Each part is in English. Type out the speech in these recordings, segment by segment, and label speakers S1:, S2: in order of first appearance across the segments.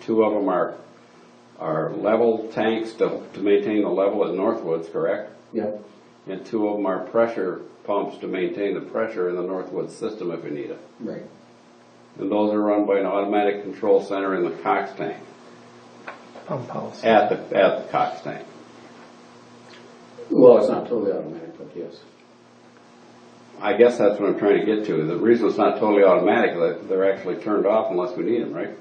S1: two of them are, are level tanks to, to maintain the level at Northwoods, correct?
S2: Yeah,
S1: And two of them are pressure pumps to maintain the pressure in the Northwoods system if we need it.
S2: right.
S1: And those are run by an automatic control center in the Cox tank,
S3: pump house.
S1: at the, at the Cox tank.
S2: Well, it's not totally automatic, but yes.
S1: I guess that's what I'm trying to get to. The reason it's not totally automatic, is that they're actually turned off unless we need them, right?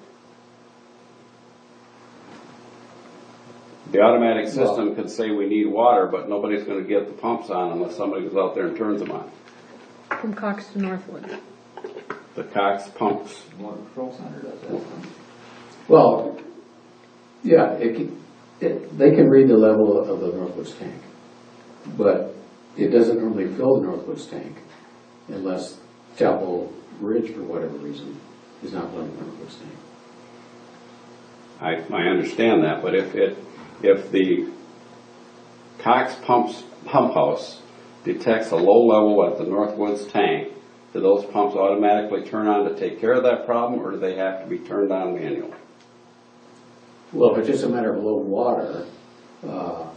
S1: The automatic system could say we need water, but nobody's gonna get the pumps on unless somebody goes out there and turns them on.
S4: From Cox to Northwood.
S1: The Cox pumps,
S5: Motor Control Center does that.
S2: Well, yeah, it can, it, they can read the level of the Northwoods tank, but it doesn't normally fill the Northwoods tank unless Chapel Ridge, for whatever reason, is not filling the Northwoods tank.
S1: I, I understand that, but if it, if the Cox pumps, pump house detects a low level at the Northwoods tank, do those pumps automatically turn on to take care of that problem, or do they have to be turned on manually?
S2: Well, if it's just a matter of low water, uh,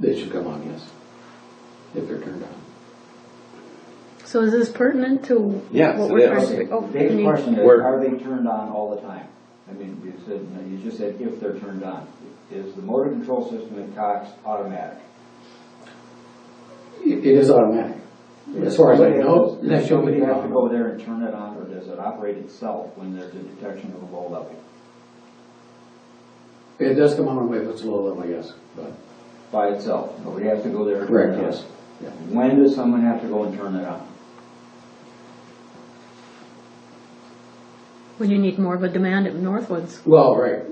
S2: they should come on, yes, if they're turned on.
S4: So is this pertinent to?
S1: Yes,
S4: what
S1: it
S4: we're
S1: is.
S4: trying to do? Oh, I
S5: Big
S4: mean,
S5: question is,
S1: Where-
S5: are they turned on all the time? I mean, you said, you just said if they're turned on. Is the motor control system in Cox automatic?
S2: It it is automatic, as far as I know.
S5: Does
S2: that's the only
S5: somebody have to
S2: problem.
S5: go there and turn it on, or does it operate itself when there's a detection of a low level?
S2: It does come on if it's low level, yes, but.
S5: By itself, nobody has to go there and turn
S2: Correct,
S5: it
S2: yes.
S5: on? When does someone have to go and turn it on?
S4: When you need more of a demand at Northwoods.
S2: Well, right,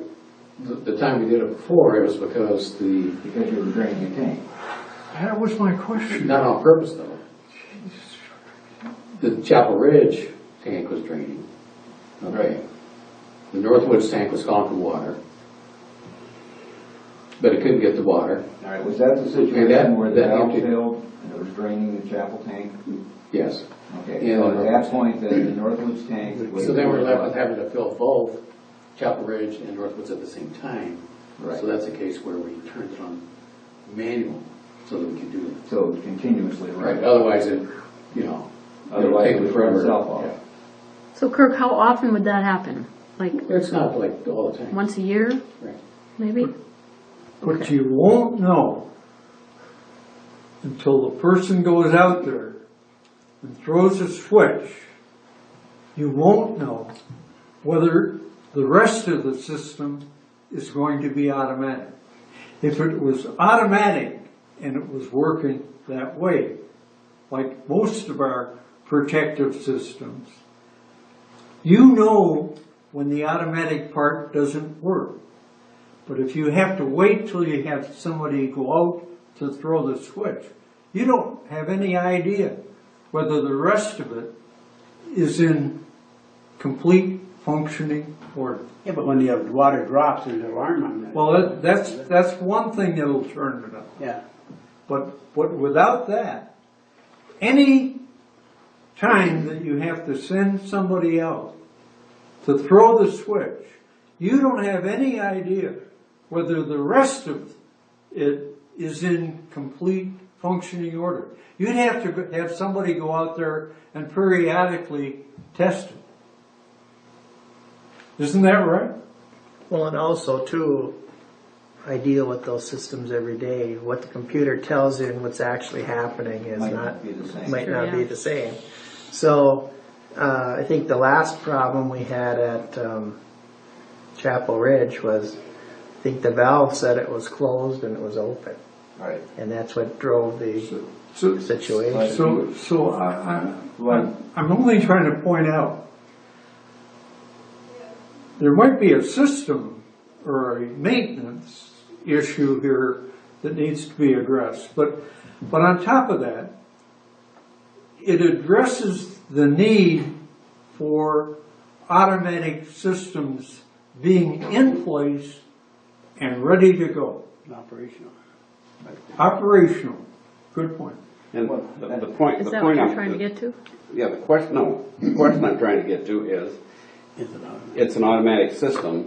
S2: the, the time we did it before, it was because the,
S5: Because you were draining the tank.
S3: That was my question.
S2: not on purpose though. The Chapel Ridge tank was draining, okay? The Northwoods tank was gone for water. But it couldn't get the water,
S5: All right, was that the situation
S2: that-
S5: where the
S2: that
S5: valve
S2: empty-
S5: failed and it was draining the chapel tank?
S2: yes.
S5: Okay,
S2: Yeah,
S5: so
S2: the
S5: at that point, then the Northwoods tank was.
S2: So then we're left with having to fill both Chapel Ridge and Northwoods at the same time.
S5: Right.
S2: So that's a case where we turned it on manual so that we can do it.
S5: So continuously,
S2: Right,
S5: right?
S2: otherwise it, you know, it'll
S5: Otherwise,
S2: take
S5: it would
S2: forever.
S5: burn itself off.
S4: So Kirk, how often would that happen? Like,
S2: Yeah. It's not like all the time.
S4: once a year,
S2: Right.
S4: maybe?
S3: But you won't know until the person goes out there and throws a switch. You won't know whether the rest of the system is going to be automatic. If it was automatic and it was working that way, like most of our protective systems, you know when the automatic part doesn't work. But if you have to wait till you have somebody go out to throw the switch, you don't have any idea whether the rest of it is in complete functioning order.
S6: Yeah, but when the uh, water drops, there's an alarm on that.
S3: Well, that- that's, that's one thing that'll turn it up.
S6: Yeah,
S3: But, but without that, any time that you have to send somebody out to throw the switch, you don't have any idea whether the rest of it is in complete functioning order. You'd have to go- have somebody go out there and periodically test it. Isn't that right?
S7: Well, and also too, I deal with those systems every day. What the computer tells you and what's actually happening is
S5: Might
S7: not,
S5: not be the same.
S7: might
S4: Sure,
S7: not be
S4: yeah.
S7: the same. So, uh, I think the last problem we had at, um, Chapel Ridge was, I think the valve said it was closed and it was open.
S5: Right.
S7: And that's what drove the
S3: So,
S7: situation.
S3: So, so I, I,
S5: Right.
S3: I'm- I'm only trying to point out, there might be a system or a maintenance issue here that needs to be addressed, but, but on top of that, it addresses the need for automatic systems being in place and ready to go,
S6: operational.
S3: operational. Good point.
S1: And
S5: Well,
S1: the, the point,
S4: Is
S1: the
S4: that
S1: point
S4: what you're
S1: I'm,
S4: trying to get to?
S1: yeah, the question, no, the question I'm trying to get to is,
S6: Is it automatic?
S1: It's an automatic system,